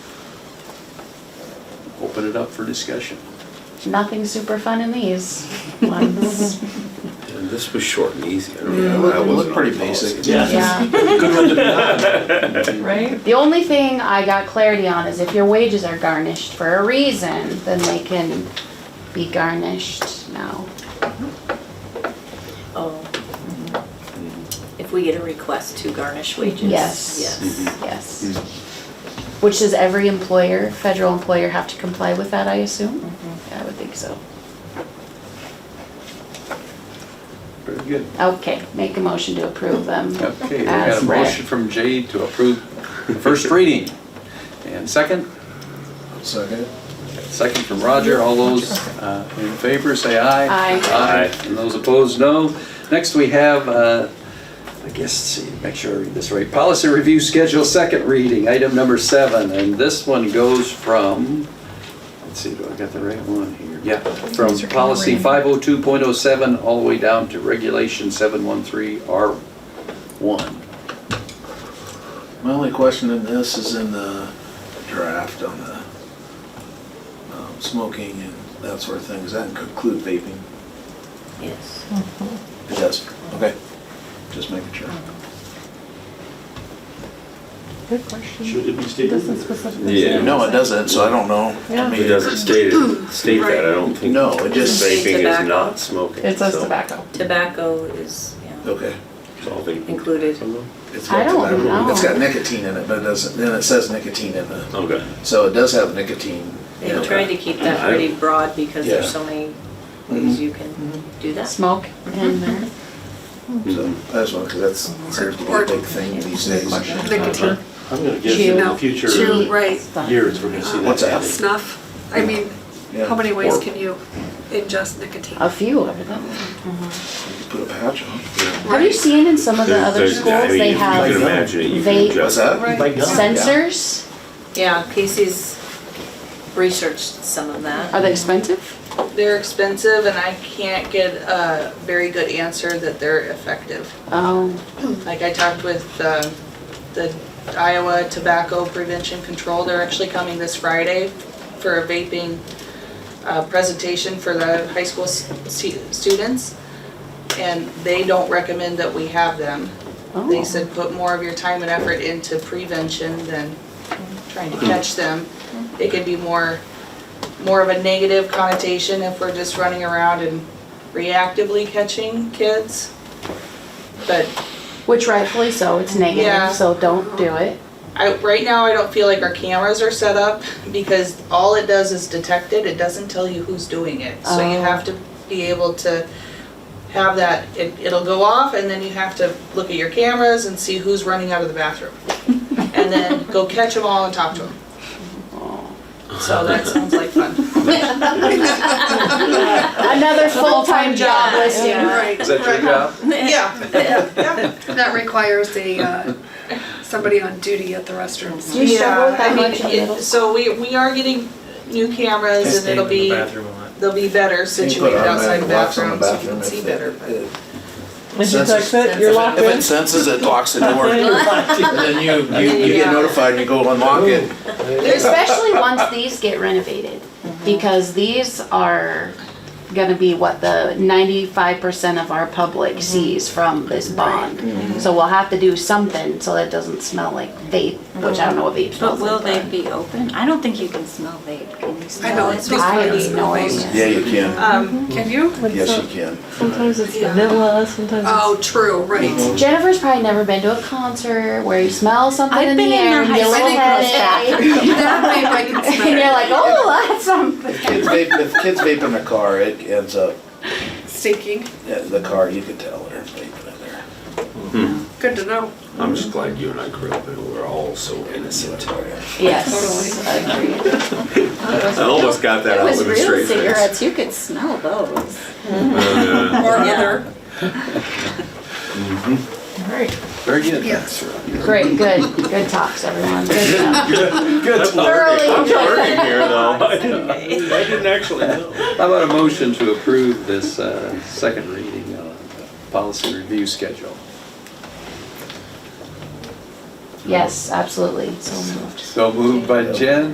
open it up for discussion. Nothing super fun in these ones. And this was short and easy. I don't Yeah, know. look- I look wasn't pretty on the policy. basic. Yeah. Good one to be on. Right? The only thing I got clarity on is if your wages are garnished for a reason, then they can be garnished now. Oh. If we get a request to garnish wages? Yes. Mm-hmm. Yes. Yes. Which does every employer, federal employer, have to comply with that, I assume? I would think so. Very good. Okay, make a motion to approve them. Okay, we got as a read. motion from Jade to approve the first reading. And second, Second. second from Roger. All those uh, in favor, say aye. Aye. Aye. And those opposed, no. Next, we have, uh, I guess, see, make sure I read this right. Policy review schedule, second reading, item number seven. And this one goes from, let's see, do I got the right one here? Yeah, from These are policy in 502.07 all the way down to regulation 713R1. My only question in this is in the draft on the um, smoking and that sort of thing. Does that include vaping? Yes. It does. Okay. Just making sure. Good question. Should it be stated? Doesn't specifically. Yeah. say. No, it doesn't, so I don't know. Yeah. I mean, It doesn't state, it- state that, I don't think. No, it just- Vaping is Tobacco. not smoking. It says so tobacco. Tobacco is, yeah, Okay. It's all vaping. included. It's got I don't tobacco. know. It's got nicotine in it, but it doesn't, then it says nicotine in the, Okay. so it does have nicotine. They in it. tried to keep that pretty broad because Yeah. there's so many ways you can do that. Smoke in there. So, I just want, because that's seems to be a big thing these days. Nicotine, I'm gonna guess Chew. in No. the future Chew, right. Mm-hmm. years, we're gonna see that. What's that? happen. snuff, I mean, Yeah. how many ways can you ingest nicotine? A few of them. Put a patch on. Have you seen in some of the There's- other there's- I schools, mean, they You can have imagine it, you vape- can adjust. What's that? Right. Like gum. sensors? Yeah, Casey's researched some of that. Are they expensive? They're expensive and I can't get a very good answer that they're effective. Oh, Like I talked with um, the Iowa Tobacco Prevention Control, they're actually coming this Friday for a vaping uh, presentation for the high school s- stu- students. And they don't recommend that we have them. They oh, said put more of your time and effort into prevention than trying to catch them. It could be more, more of a negative connotation if we're just running around and reactively catching kids. But which rightfully so, it's negative, Yeah. so don't do it. I, right now, I don't feel like our cameras are set up because all it does is detect it, it doesn't tell you who's doing it. So you Oh. have to be able to have that, it, it'll go off and then you have to look at your cameras and see who's running out of the bathroom. And then go catch them all and talk to them. So that sounds like fun. Another full-time job job. listing. Yeah. Right. Is that your job? Yeah, yeah. That requires a, uh, somebody on duty at the restrooms. Do you struggle with Yeah, that I much in mean, middle? it- so we, we are getting new cameras and it'll be, they'll be better situated outside the bathroom so you can see better. but- If you touch it, you're locked If it in. senses it, locks the door. And then you, you, you get Yeah. notified and you go unlock it. Especially once these get renovated, because these are gonna be what the ninety-five percent of our public sees from this bond. So we'll have to do something so that it doesn't smell like vape, which I don't know what vape But smells will like. they be open? I don't think you can smell vape. Can you smell I know, it? it's I pretty have no idea. Yeah, you can. Mm-hmm. Um, Can you? But Yes, so- you can. Sometimes it's Yeah. vanilla, sometimes Oh, it's. true, right. Jennifer's probably never been to a concert where you smell something I've in the been in air the and you get a high little school headache. That vape I can smell. And you're like, oh, that's something. If kids vape, if kids vape in the car, it ends up, Stinking, yeah, the car, you can tell they're vaping in there. good to know. I'm just glad you and I grew up and we're all so innocent. Yes, agreed. I almost got that It out was with a real straight face. Oh, cigarettes, you could smell those. Or Yeah. other, Right. Very good. yes. Great, good, good talks, everyone. Good stuff. Good. Thoroughly enjoyed that. Working here though. I didn't actually know. How about a motion to approve this uh, second reading on the policy review schedule? Yes, absolutely. So moved. So moved by Jen,